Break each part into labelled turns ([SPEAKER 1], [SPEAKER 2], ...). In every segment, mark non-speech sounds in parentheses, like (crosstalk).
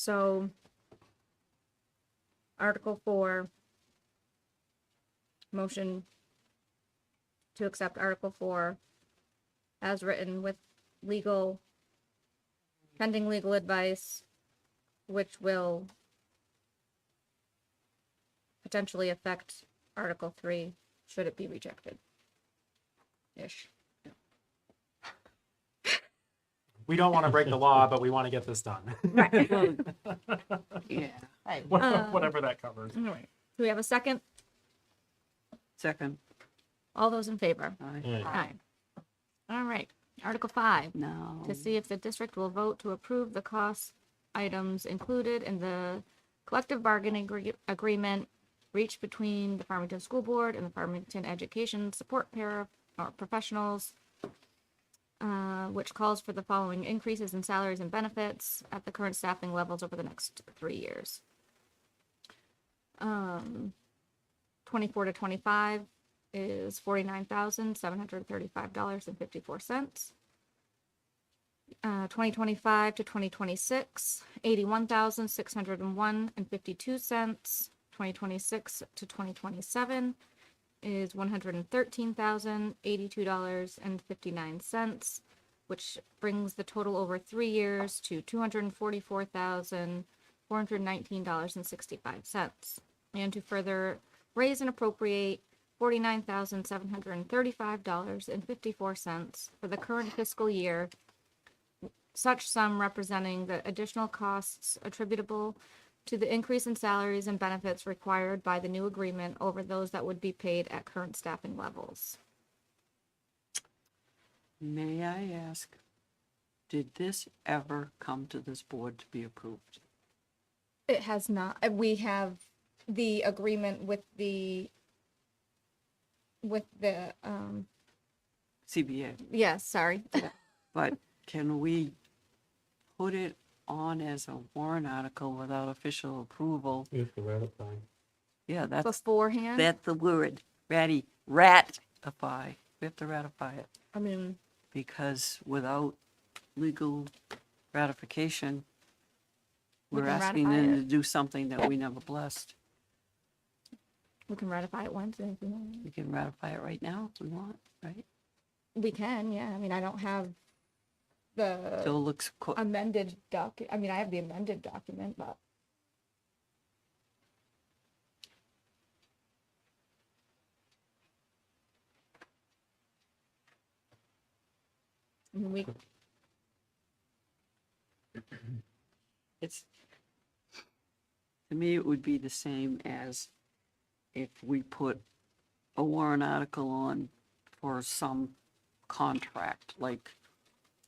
[SPEAKER 1] So Article four. Motion to accept Article four as written with legal pending legal advice, which will potentially affect Article three, should it be rejected. Ish.
[SPEAKER 2] We don't want to break the law, but we want to get this done. (laughs)
[SPEAKER 1] Right.
[SPEAKER 3] Yeah.
[SPEAKER 4] Right.
[SPEAKER 2] Whatever-
[SPEAKER 1] Uh,
[SPEAKER 2] Whatever that covers.
[SPEAKER 1] All right. Do we have a second?
[SPEAKER 3] Second.
[SPEAKER 1] All those in favor?
[SPEAKER 2] Mm.
[SPEAKER 3] I
[SPEAKER 1] Aye. All right, Article five,
[SPEAKER 3] No.
[SPEAKER 1] to see if the district will vote to approve the cost items included in the collective bargaining agree- agreement reached between the Farmington School Board and the Farmington Education Support Para or Professionals, uh, which calls for the following increases in salaries and benefits at the current staffing levels over the next three years. Um, twenty-four to twenty-five, is forty-nine thousand, seven hundred thirty-five dollars and fifty-four cents. Uh, twenty twenty-five to twenty twenty-six, eighty-one thousand, six hundred and one and fifty-two cents. Twenty twenty-six to twenty twenty-seven is one hundred and thirteen thousand, eighty-two dollars and fifty-nine cents, which brings the total over three years to two hundred and forty-four thousand, four hundred and nineteen dollars and sixty-five cents. And to further raise and appropriate forty-nine thousand seven hundred and thirty-five dollars and fifty-four cents for the current fiscal year. Such sum representing the additional costs attributable to the increase in salaries and benefits required by the new agreement over those that would be paid at current staffing levels.
[SPEAKER 3] May I ask, did this ever come to this board to be approved?
[SPEAKER 1] It has not, uh, we have the agreement with the with the, um,
[SPEAKER 3] CBA,
[SPEAKER 1] yes, sorry.
[SPEAKER 3] but can we put it on as a warrant article without official approval?
[SPEAKER 2] We have to ratify.
[SPEAKER 3] Yeah, that's,
[SPEAKER 1] Beforehand,
[SPEAKER 3] that's the word, ratty, ratify. We have to ratify it
[SPEAKER 1] I mean,
[SPEAKER 3] because without legal ratification,
[SPEAKER 1] We
[SPEAKER 3] we're
[SPEAKER 1] can
[SPEAKER 3] asking
[SPEAKER 1] ratify
[SPEAKER 3] them
[SPEAKER 1] it.
[SPEAKER 3] to do something that we never blessed.
[SPEAKER 1] we can ratify it once and if we want.
[SPEAKER 3] We can ratify it right now if we want, right?
[SPEAKER 1] We can, yeah. I mean, I don't have the Uh,
[SPEAKER 3] So it looks, co-
[SPEAKER 1] amended doc, I mean, I have the amended document, but. I mean, We,
[SPEAKER 3] it's, to me, it would be the same as if we put a warrant article on for some contract, like,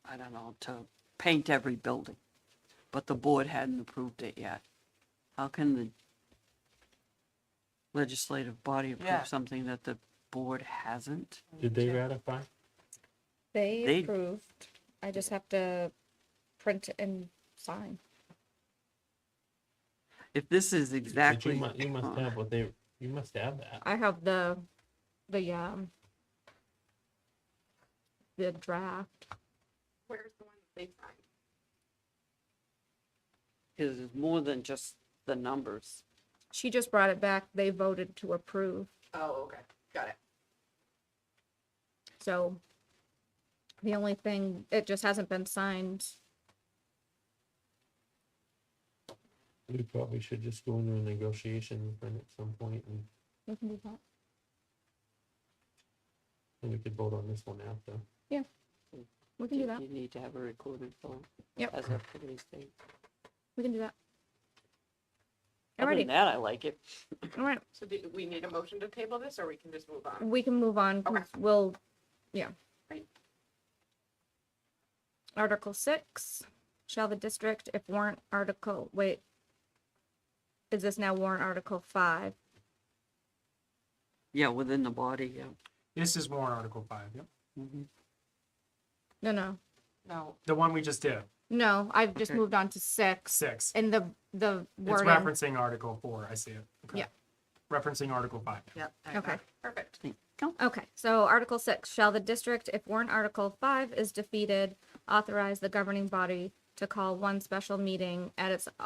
[SPEAKER 3] I don't know, to paint every building, but the board hadn't approved it yet. How can the legislative body
[SPEAKER 4] Yeah.
[SPEAKER 3] approve something that the board hasn't?
[SPEAKER 5] Did they ratify?
[SPEAKER 1] they
[SPEAKER 3] They-
[SPEAKER 1] approved, I just have to print and sign.
[SPEAKER 3] If this is
[SPEAKER 5] But
[SPEAKER 3] exactly.
[SPEAKER 5] you must, you must
[SPEAKER 3] uh,
[SPEAKER 5] have what they, you must have that.
[SPEAKER 1] I have the, the, um, the draft.
[SPEAKER 3] Because it's more than just the numbers.
[SPEAKER 1] She just brought it back. They voted to approve.
[SPEAKER 4] Oh, okay, got it.
[SPEAKER 1] So the only thing, it just hasn't been signed.
[SPEAKER 5] We probably should just go into a negotiation with them at some point and,
[SPEAKER 1] We can do that.
[SPEAKER 5] and we could vote on this one after.
[SPEAKER 1] We can do that.
[SPEAKER 3] You need to have a recorded vote.
[SPEAKER 1] Yep.
[SPEAKER 3] As of today's date.
[SPEAKER 1] We can do that.
[SPEAKER 3] Other than
[SPEAKER 1] Alrighty,
[SPEAKER 3] that, I like it.
[SPEAKER 1] alright.
[SPEAKER 4] So do we need a motion to table this or we can just move on?
[SPEAKER 1] We can move on.
[SPEAKER 4] Okay.
[SPEAKER 1] We'll, yeah.
[SPEAKER 4] Great.
[SPEAKER 1] Article six, shall the district, if warrant article, wait. Is this now warrant article five?
[SPEAKER 3] Yeah, within the body, yeah.
[SPEAKER 2] This is warrant article five, yep.
[SPEAKER 3] Mhm.
[SPEAKER 1] No, no,
[SPEAKER 4] No,
[SPEAKER 2] The one we just did,
[SPEAKER 1] no. I've just
[SPEAKER 3] Okay.
[SPEAKER 1] moved on to six
[SPEAKER 2] six.
[SPEAKER 1] and the, the
[SPEAKER 2] It's
[SPEAKER 1] wording.
[SPEAKER 2] referencing article four, I see it. Okay.
[SPEAKER 1] Yeah.
[SPEAKER 2] Referencing article five.
[SPEAKER 4] yeah. I
[SPEAKER 1] Okay.
[SPEAKER 4] got it. Perfect.
[SPEAKER 1] Okay, so Article Six, shall the district, if warrant Article Five is defeated, authorize the governing body to call one special meeting at its